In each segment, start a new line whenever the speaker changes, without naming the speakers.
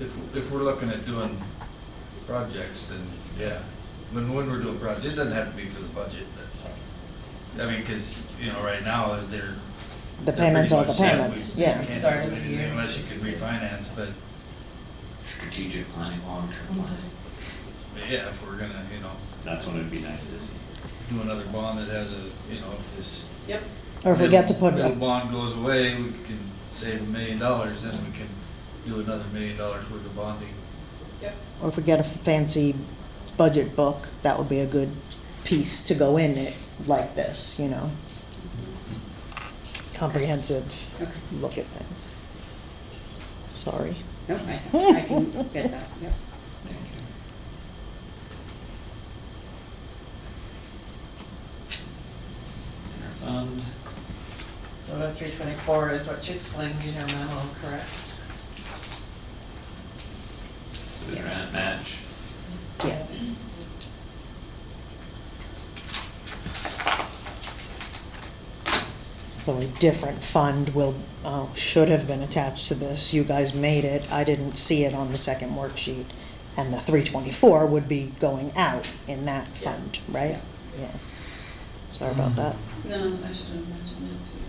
If, if we're looking at doing projects, then, yeah, when, when we're doing projects, it doesn't have to be for the budget, but, I mean, cause, you know, right now, they're.
The
they're
payments
pretty
are the
much set. We-
payments,
we
yeah.
can't do
Start of the
anything
year.
Unless you can refinance, but,
strategic planning, long-term
Mm-hmm.
planning.
but yeah, if we're gonna, you know,
That's when it'd be nice to see.
do another bond that has a, you know, if this.
Yep.
Or if we get to put,
Middle
a-
bond goes away, we can save a million dollars, then we can do another million dollars worth of bonding.
Yep.
or if we get a fancy budget book, that would be a good piece to go in it like this, you know? Comprehensive
Okay.
look at things. Sorry.
No, I, I can get that, yep.
Thank you. Interfund,
So the three twenty-four is what you explained in your memo, correct?
the
Yes.
grant match,
Yes.
So a different fund will, oh, should have been attached to this. You guys made it. I didn't see it on the second worksheet. And the three twenty-four would be going out in that
Yeah.
fund, right? Yeah. Sorry about that.
No, I should have mentioned that too.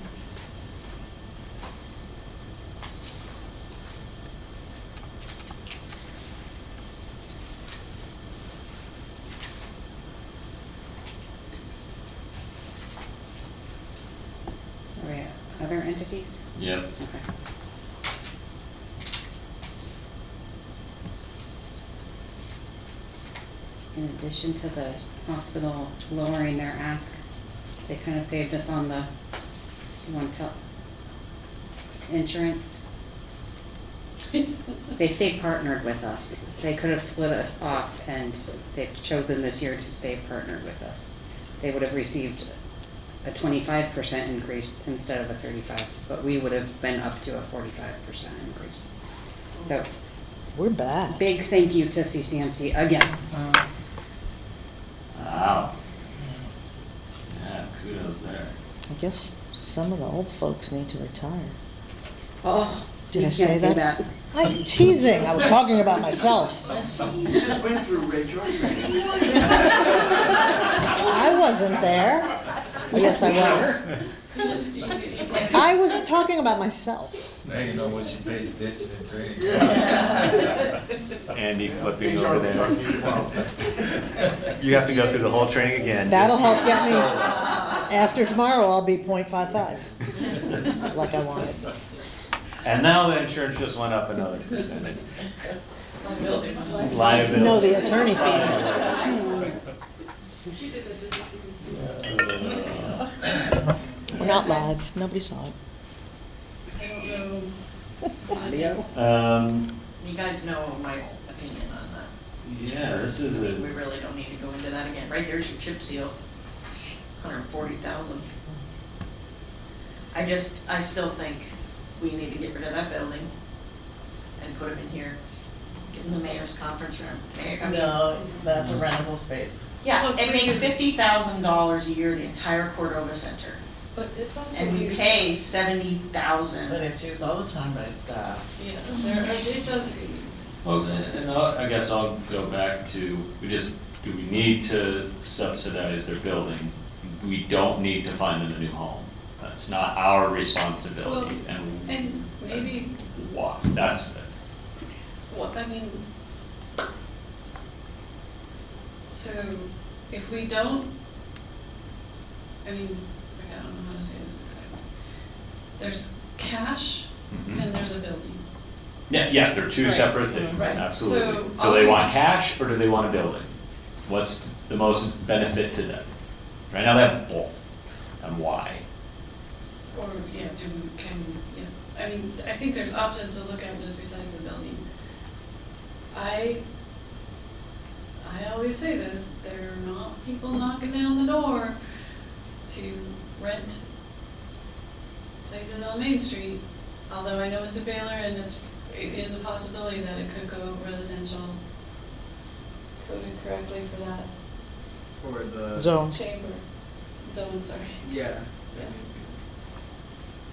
Are we other entities?
yep.
Okay. In addition to the hospital lowering their ask, they kind of saved us on the one tel, insurance. They stayed partnered with us. They could have split us off and they've chosen this year to stay partnered with us. They would have received a twenty-five percent increase instead of a thirty-five, but we would have been up to a forty-five percent increase. So,
We're back.
big thank you to CCMC again.
Um,
Wow.
Wow. Yeah, kudos there.
I guess some of the old folks need to retire.
Oh,
Did
you
I
can't
say that? I'm teasing. I was talking about myself.
just went through Ridge already.
I wasn't there. Yes, I was.
You just- you- you can't do-
I was talking about myself.
Now you know when she pays attention in training.
Andy flipping
Things
over
aren't talking
there.
about.
You have to go through the whole training again.
That'll
just-
help get me. After tomorrow, I'll be .55, like I wanted.
And now the insurance just went up another percentage.
I'm building my life.
Liability.
No, the attorney fees. We're not live. Nobody saw it.
I don't know.
Audio?
Um,
You guys know my opinion on that.
Yeah, this is
We
a,
really don't need to go into that again. Right there's your chip seal, hundred and forty thousand. I just, I still think we need to get rid of that building and put it in here, get in the mayor's conference room. Mayor- I mean,
No, that's a rentable space.
Yeah,
Well, it's
it
pretty
makes
good.
fifty thousand dollars a year, the entire Cordova Center,
But it's also
and we
used.
pay seventy
But
thousand.
it's used all the time by staff.
Yeah, there, and it does get used.
well, then, and I'll- I guess I'll go back to, we just, do we need to subsidize their building? We don't need to find them a new home. That's not our responsibility
Well,
and.
And maybe,
Why, that's,
what, I mean, so if we don't, I mean, okay, I don't know how to say this. There's cash
mhm.
and there's a building.
Yeah, yeah, they're two
Right.
separate things,
Right.
absolutely.
So
So they
are we-
want cash or do they want a building? What's the most benefit to them? Right now they have both, and why?
Or, yeah, do, we- can, yeah, I mean, I think there's options to look at just besides the building. I, I always say this, there are not people knocking down the door to rent places on Main Street, although I know it's a Baylor and it's, it is a possibility that it could go residential coded correctly for that
For the,
Zone.
chamber, zone, sorry.
yeah.
Yeah.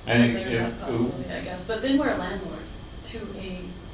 I think
So
if-
There's that possibility, I guess, but then we're a landlord to a